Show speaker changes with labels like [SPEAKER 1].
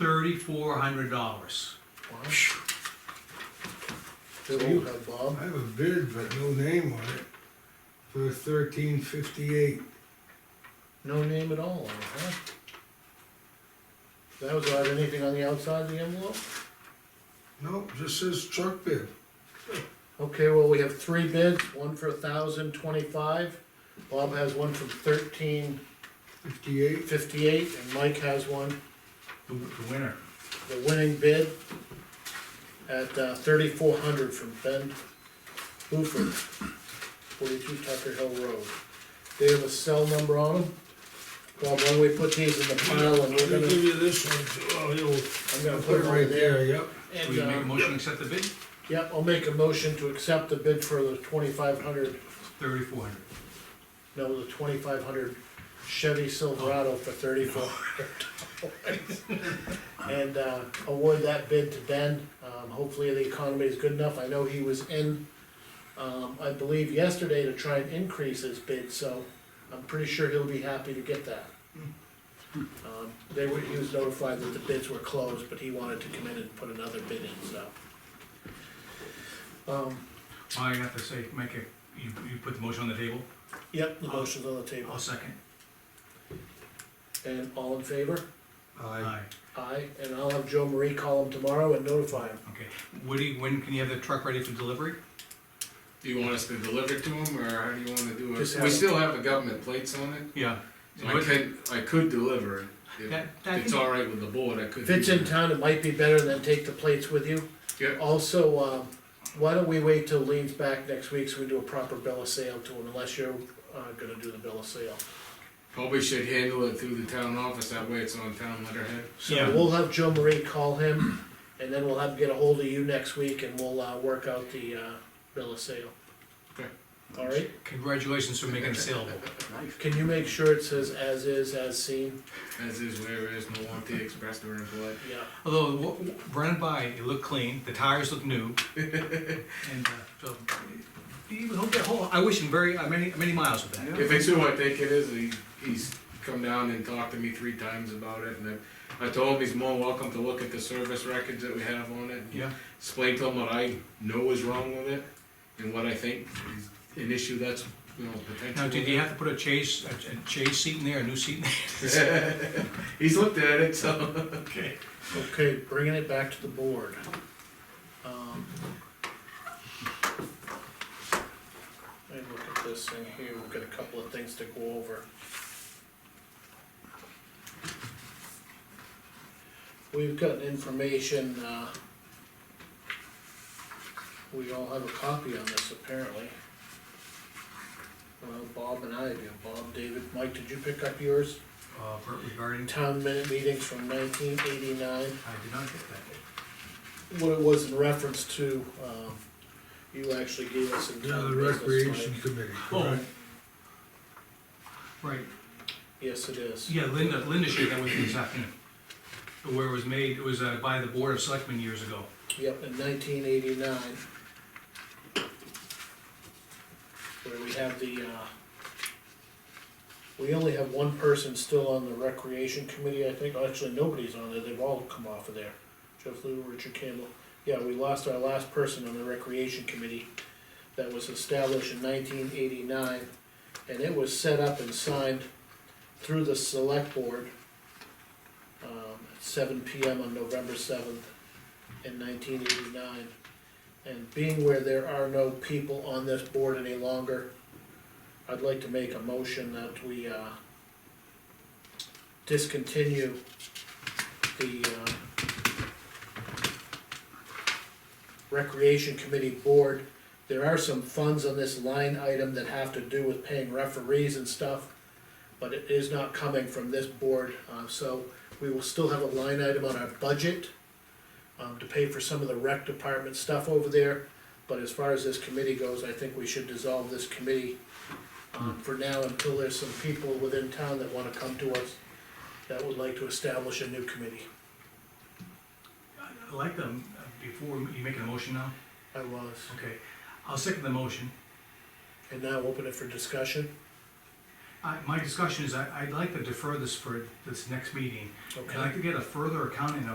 [SPEAKER 1] thirty-four hundred dollars.
[SPEAKER 2] Wow. They won't have Bob.
[SPEAKER 3] I have a bid, but no name on it, for thirteen fifty-eight.
[SPEAKER 2] No name at all on it, huh? That was without anything on the outside of the envelope?
[SPEAKER 3] No, just says truck bid.
[SPEAKER 2] Okay, well, we have three bids, one for a thousand twenty-five, Bob has one from thirteen
[SPEAKER 3] Fifty-eight.
[SPEAKER 2] fifty-eight, and Mike has one,
[SPEAKER 1] The the winner.
[SPEAKER 2] the winning bid at uh, thirty-four hundred from Ben Buford, forty-two Tucker Hill Road. They have a cell number on them. Bob, why don't we put these in the pile and
[SPEAKER 3] I'll
[SPEAKER 2] we're
[SPEAKER 3] give
[SPEAKER 2] gonna,
[SPEAKER 3] you this one, oh, you'll,
[SPEAKER 2] I'm gonna
[SPEAKER 3] put it right there, yep.
[SPEAKER 1] Will
[SPEAKER 2] And,
[SPEAKER 1] you make a
[SPEAKER 2] uh,
[SPEAKER 1] motion to accept the bid?
[SPEAKER 2] yeah, I'll make a motion to accept the bid for the twenty-five hundred
[SPEAKER 1] Thirty-four hundred.
[SPEAKER 2] No, the twenty-five hundred Chevy Silverado for thirty-four hundred dollars. And, uh, award that bid to Ben, um, hopefully the economy is good enough, I know he was in, um, I believe yesterday to try and increase his bid, so I'm pretty sure he'll be happy to get that. Um, they were, he was notified that the bids were closed, but he wanted to come in and put another bid in, so. Um,
[SPEAKER 1] I have to say, make it, you, you put the motion on the table?
[SPEAKER 2] yep, the motion's on the table,
[SPEAKER 1] I'll second.
[SPEAKER 2] and all in favor?
[SPEAKER 3] Aye.
[SPEAKER 2] Aye, and I'll have Joe Marie call him tomorrow and notify him.
[SPEAKER 1] Okay. Woody, when can you have the truck ready for delivery?
[SPEAKER 4] Do you want us to deliver it to them, or how do you wanna do
[SPEAKER 2] Just
[SPEAKER 4] it?
[SPEAKER 2] have
[SPEAKER 4] We
[SPEAKER 2] it.
[SPEAKER 4] still have the government plates on it,
[SPEAKER 1] Yeah.
[SPEAKER 4] so I can, I could deliver it. If
[SPEAKER 1] That- that
[SPEAKER 4] it's
[SPEAKER 1] can-
[SPEAKER 4] all right with the board, I could.
[SPEAKER 2] If it's in
[SPEAKER 4] do
[SPEAKER 2] town, it might be better than take the plates with you.
[SPEAKER 4] Yeah.
[SPEAKER 2] Also, um, why don't we wait till Lean's back next week so we do a proper bill of sale to him, unless you're, uh, gonna do the bill of sale.
[SPEAKER 4] Probably should handle it through the town office, that way it's on town letterhead.
[SPEAKER 2] So
[SPEAKER 1] Yeah.
[SPEAKER 2] we'll have Joe Marie call him, and then we'll have, get a hold of you next week and we'll, uh, work out the, uh, bill of sale.
[SPEAKER 4] Okay.
[SPEAKER 2] All right,
[SPEAKER 1] Congratulations for making it saleable.
[SPEAKER 2] can you make sure it says as is, as seen?
[SPEAKER 4] As is where it is, Milwaukee Express, they're in blood.
[SPEAKER 2] Yeah,
[SPEAKER 1] Although, w- w- run it by, it looked clean, the tires look new. And, uh, so, he would hope that whole, I wish him very, uh, many, many miles with that.
[SPEAKER 4] If it's who I think it is, he, he's come down and talked to me three times about it, and I, I told him he's more welcome to look at the service records that we have on it.
[SPEAKER 1] Yeah.
[SPEAKER 4] Explain to him what I know is wrong with it, and what I think is an issue that's, you know, potential.
[SPEAKER 1] Now, did you have to put a chase, a a chase seat in there, a new seat in there?
[SPEAKER 4] He's looked at it, so.
[SPEAKER 1] Okay.
[SPEAKER 2] okay, bringing it back to the board. Um, Let me look at this thing here, we've got a couple of things to go over. We've got information, uh, we all have a copy on this apparently. Well, Bob and I do, Bob, David, Mike, did you pick up yours?
[SPEAKER 1] Uh, regarding,
[SPEAKER 2] Town minute meetings from nineteen eighty-nine
[SPEAKER 1] I did not get that.
[SPEAKER 2] what it was in reference to, um, you actually gave us some
[SPEAKER 3] Now the
[SPEAKER 2] town business,
[SPEAKER 3] recreation
[SPEAKER 2] Mike.
[SPEAKER 3] committee,
[SPEAKER 1] Oh.
[SPEAKER 3] correct?
[SPEAKER 1] Right,
[SPEAKER 2] Yes, it is.
[SPEAKER 1] yeah, Linda, Linda shared that with me this afternoon. Where it was made, it was uh, by the Board of Selectmen years ago.
[SPEAKER 2] Yep, in nineteen eighty-nine. Where we have the, uh, we only have one person still on the recreation committee, I think, actually, nobody's on there, they've all come off of there. Jeff Lou, Richard Campbell, yeah, we lost our last person on the recreation committee that was established in nineteen eighty-nine. And it was set up and signed through the select board, um, at seven P M on November seventh in nineteen eighty-nine. And being where there are no people on this board any longer, I'd like to make a motion that we, uh, discontinue the, uh, Recreation Committee Board. There are some funds on this line item that have to do with paying referees and stuff, but it is not coming from this board, uh, so we will still have a line item on our budget um, to pay for some of the rec department stuff over there. But as far as this committee goes, I think we should dissolve this committee, um, for now until there's some people within town that wanna come to us that would like to establish a new committee.
[SPEAKER 1] I like them, uh, before, you making a motion now?
[SPEAKER 2] I was,
[SPEAKER 1] Okay, I'll second the motion.
[SPEAKER 2] and now open it for discussion,
[SPEAKER 1] I, my discussion is, I, I'd like to defer this for this next meeting. I'd
[SPEAKER 2] okay?
[SPEAKER 1] like to get a further accounting of